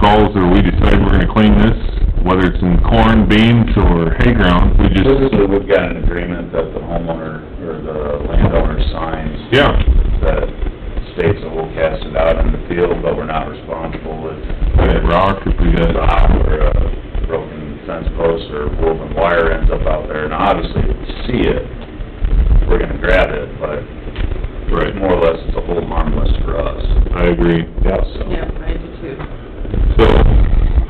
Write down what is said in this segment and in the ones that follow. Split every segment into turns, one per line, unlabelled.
calls or we decide we're gonna clean this, whether it's in corn, beans, or hay ground, we just,
Typically, we've got an agreement that the homeowner or the landowner signs
yeah,
that states that we'll cast it out in the field, but we're not responsible if
we got rock, if we
a
got,
rock or a broken fence post or woven wire ends up out there. And obviously, if we see it, we're gonna grab it, but
right,
more or less, it's a whole harmless for us.
I agree.
Yeah. So,
Yeah, I do too.
So,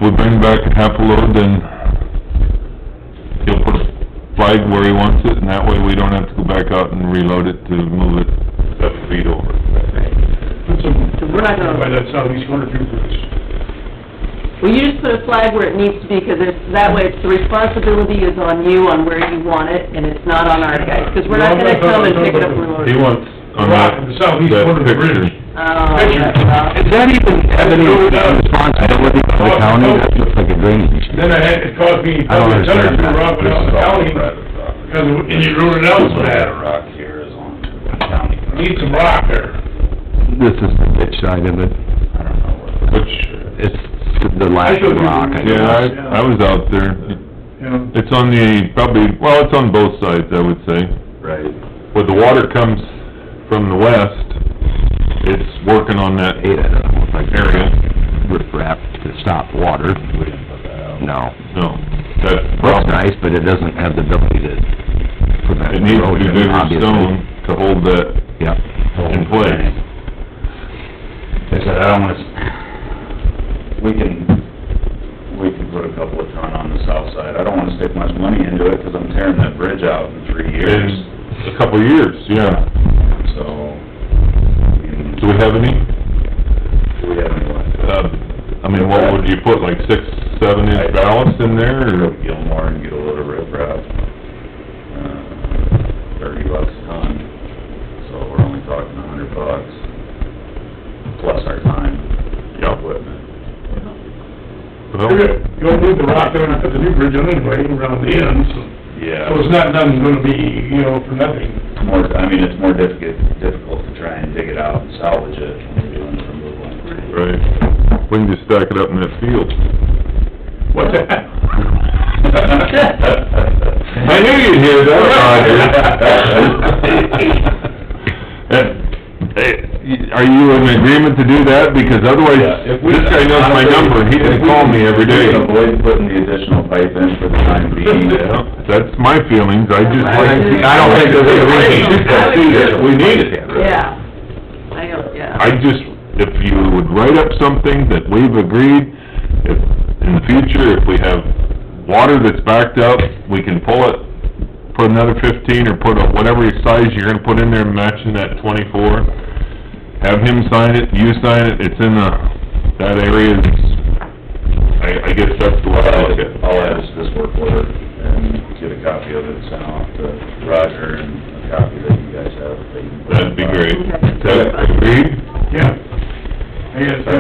we bring back a half a load, then he'll put a flag where he wants it, and that way we don't have to go back out and reload it to move it seven feet over.
That's a,
We're not gonna-
by that southeast corner too, Bruce.
Well, you just put a flag where it needs to be, 'cause it's, that way, it's, the responsibility is on you, on where you want it, and it's not on our guys, 'cause we're not gonna come and pick it up and load
He
it.
wants on
Rock
that,
in the southeast
that
corner of the
picture.
bridge.
Oh, yeah,
Does Uh, that even have any responsibility for the county? That looks like a drainage.
Then I had, it caused me,
I don't
probably a ton
understand
of
that.
rock
This
out
is
the
all
county,
private property.
because, it- and you ruined it out so
That
bad.
rock here is on county. property.
Need some rock there.
This is the ditch side of it.
I don't know what.
Which-
It's the last rock. I
Yeah,
guess.
I, I was out there.
Yeah.
It's on the, probably, well, it's on both sides, I would say.
Right.
Where the water comes from the west, it's working on that
Hey, that doesn't look like
area.
riprap to stop water.
We didn't put that out.
No.
No, that's the
Looks
problem.
nice, but it doesn't have the ability to prevent
It
Oh,
needs to be
erosion,
bigger
obviously.
stone to hold that
Yep.
in place.
Like I said, I don't wanna, s- we can, we can put a couple of ton on the south side. I don't wanna stick much money into it, 'cause I'm tearing that bridge out in three years,
In a couple of years, yeah.
so.
Do we have any,
Do we have any left?
uh, I mean, what would you put, like six, seven inch ballast in there,
Go
or?
to Gilmore and get a load of riprap, uh, thirty bucks a ton, so we're only talking a hundred bucks, plus our time,
Yeah.
equipment.
You're gonna- You don't move the rock there and put the new bridge on anyway, around the ends,
Yeah.
so it's not, nothing gonna be, you know, for nothing.
more, I mean, it's more difficult, difficult to try and dig it out and salvage it when you're doing the removal.
Right, we can just stack it up in that field.
What's that?
I knew you'd hear that, Roger. Uh, eh, Are you in agreement to do that? Because otherwise,
Yeah, if we-
this guy knows my number, and he didn't call me every day.
If we can Avoid putting the additional pipe in for the time being.
Yeah, That's my feelings, I just...
I think- I don't think there's any reason to
do that. We need it.
yeah. I don't, yeah.
I just, if you would write up something that we've agreed, if, in the future, if we have water that's backed up, we can pull it, put another fifteen, or put a, whatever size you're gonna put in there, matching that twenty-four. Have him sign it, you sign it, it's in the, that area is, I, I guess that's the way I look at it.
I'll add this work order and get a copy of it sent off to Roger and a copy that you guys have. that you can put
That'd be
on.
great.
Okay.
That's agreed?
Yeah. I guess, uh,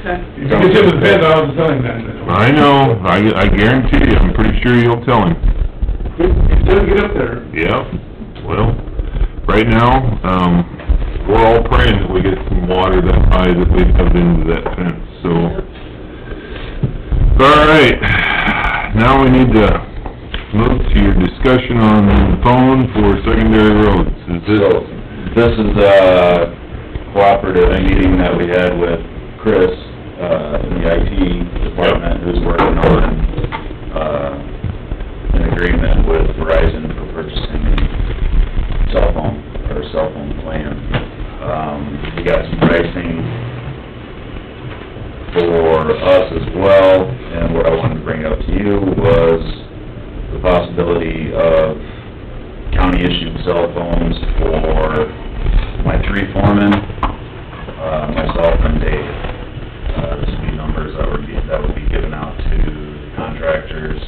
Okay.
if you get him the bed, I'll tell him that.
I know, I, I guarantee you, I'm pretty sure you'll tell him.
It doesn't get up there.
Yeah, well, right now, um, we're all praying that we get some water that high that we have into that fence, so. All right, now we need to move to your discussion on the phone for secondary roads. Is this,
So, this is a cooperative meeting that we had with Chris, uh, in the IT department, who's working on, uh, an agreement with Verizon for purchasing cell phone, or cell phone plan. Um, we got some pricing for us as well, and what I wanted to bring up to you was the possibility of county issued cell phones for my three foremen, uh, myself and Dave. Uh, this would be numbers that would be, that would be given out to contractors,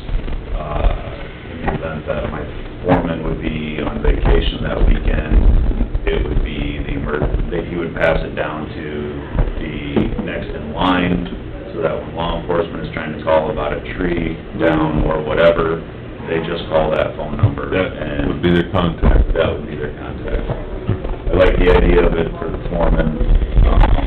uh, in the event that my foreman would be on vacation that weekend. It would be the emer, that he would pass it down to the next in line, so that when law enforcement is trying to call about a tree down or whatever, they just call that phone number
that
and
would be their contact?
that would be their contact. I like the idea of it for the foreman, um,